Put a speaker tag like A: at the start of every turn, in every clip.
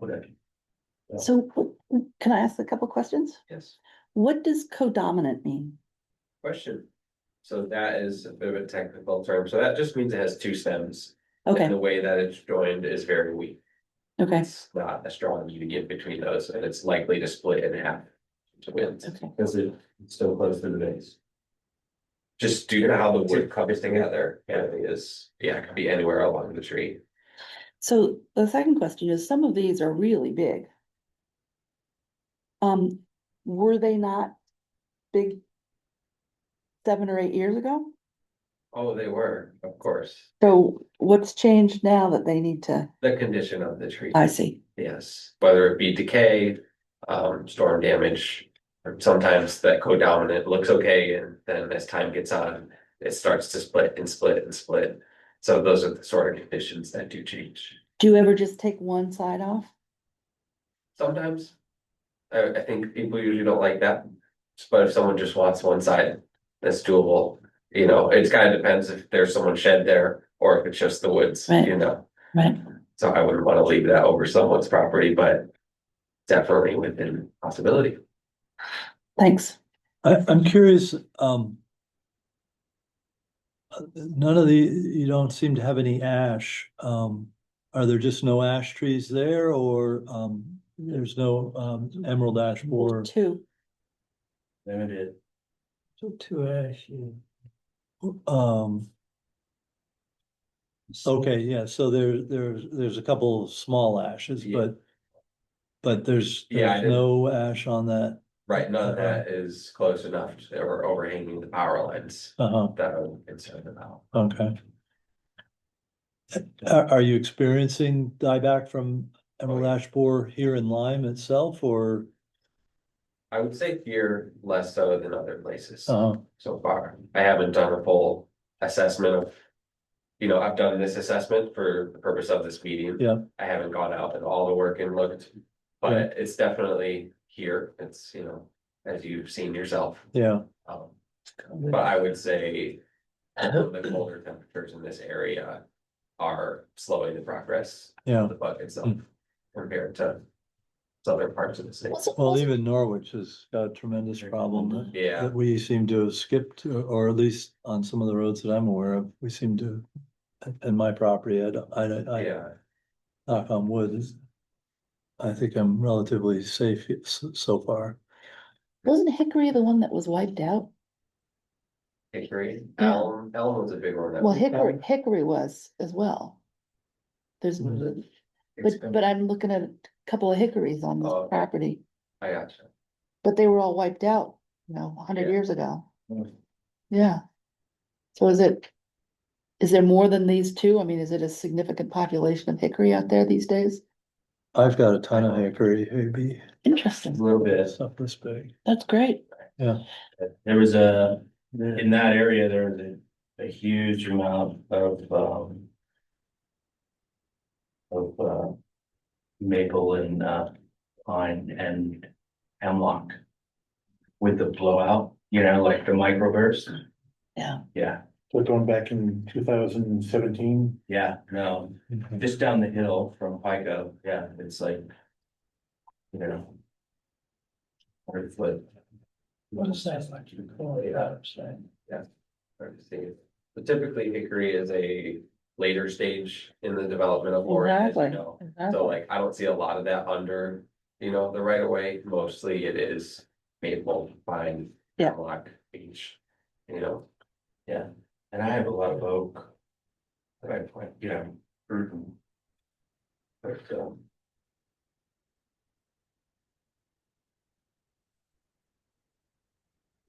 A: Whatever.
B: So can I ask a couple questions?
A: Yes,
B: What does codominant mean?
A: question. So that is a bit of a technical term, so that just means it has two stems. and
B: Okay,
A: The way that it's joined is very weak.
B: okay,
A: It's not a strong union between those, and it's likely to split in half to win.
B: okay,
C: Because it it's still close to the base.
A: Just due to how the wood covers together, yeah, it is, yeah, it could be anywhere along the tree.
B: so the second question is, some of these are really big. Um, were they not big? Seven or eight years ago?
A: Oh, they were, of course,
B: So what's changed now that they need to,
A: the condition of the tree.
B: I see,
A: Yes, whether it be decay, um, storm damage. or Sometimes that co-dominant looks okay, and then as time gets on, it starts to split and split and split. So those are the sort of conditions that do change.
B: do you ever just take one side off?
A: Sometimes. I, I think people usually don't like that. But if someone just wants one side, that's doable. You know, it's kind of depends if there's someone shed there or if it's just the woods,
B: Right.
A: you know.
B: Right.
A: So I wouldn't want to leave that over someone's property, but definitely within possibility.
B: Thanks,
D: I, I'm curious, um. uh, None of the, you don't seem to have any ash, um, are there just no ash trees there or, um, there's no, um, emerald ash borer?
B: two,
C: There it is.
D: Two ash, Um, okay, yeah, so there, there's, there's a couple of small ashes,
A: Yeah.
D: but. But there's,
A: Yeah, I
D: there's
A: didn't-
D: no ash on that,
A: Right, none of
D: Uh-huh.
A: that is close enough to- or overhanging the power lines
D: uh-huh,
A: that I'm concerned about.
D: okay. Are, are you experiencing dieback from emerald
A: yeah.
D: ash borer here in Lyme itself or,
A: I would say here less so than other places
D: uh,
A: so far. I haven't done a full assessment of. You know, I've done this assessment for the purpose of this meeting.
D: Yeah.
A: I haven't gone out and all the work and looked,
D: Yeah.
A: but it's definitely here. It's, you know, as you've seen yourself.
D: yeah,
A: Um, but I would say. The colder temperatures in this area are slowing the progress
D: yeah.
A: the bug
C: Hmm.
A: itself compared to other parts of the state.
D: Well, even Norwich has got a tremendous problem
A: Yeah,
D: that we seem to have skipped, or- or at least on some of the roads that I'm aware of, we seem to. And my property, I, don't- I, don't- I,
A: yeah,
D: knock on wood, is- I think I'm relatively safe s- so far.
B: wasn't Hickory the one that was wiped out?
A: hickory,
B: Yeah.
A: elm, elm was a big one. that
B: Well,
A: we
B: Hickory,
A: found.
B: Hickory was as well. There's,
D: Mhm.
A: Mm-hmm. It's
B: but,
A: been-
B: but I'm looking at a couple of Hickories on this
A: Oh.
B: property,
A: I gotcha.
B: but they were all wiped out, you know, a hundred
A: Yeah. Mm-hmm.
B: years ago.
C: Mm.
B: Yeah. So is it, is there more than these two? I mean, is it a significant population of Hickory out there these days?
D: I've got a ton of hickory, maybe
B: Interesting,
C: Little bit.
D: it's not this big.
B: that's great.
C: There was a, in that area, there was a, a huge amount of, um. Of, uh. Maple and, uh, pine and hemlock. With the blowout, you know, like the microburst.
B: Yeah.
C: Yeah,
E: So going back in two thousand and seventeen,
C: yeah, no, just down the hill from Pico, yeah, it's like. You know. Hundred foot.
A: What is that
C: like you
A: call it, I'm Oh, Hard to see. But typically hickory is a later stage in the development of Lorraine, as you
B: Exactly.
A: know. So
B: exactly.
A: like, I don't see a lot of that under, you know, the right of way, mostly it is maple, pine.
B: Yeah.
A: Hemlock, beech, you know.
C: Yeah, and I have a lot of oak. That I plant, you know.
A: But, um,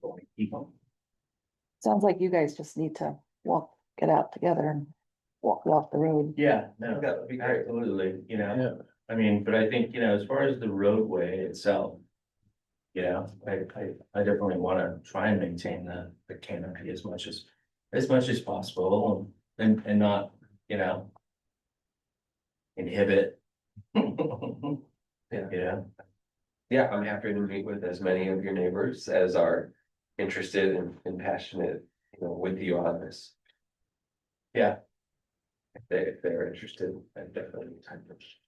C: but I keep 'em.
B: Sounds like you guys just need to walk, get out together and walk, walk the road.
C: Yeah, no,
A: That would be great.
C: absolutely, you know, I mean, but I think, you know, as far as the roadway itself. You know, I, I, I definitely wanna try and maintain the, the canopy as much as, as much as possible and, and not, you know. Inhibit.
A: Yeah.
C: Yeah.
A: Yeah, I'm happy to meet with as many of your neighbors as are interested and and passionate, you know, with you on this.
C: Yeah.
A: If they, if they're interested, I definitely. need time to-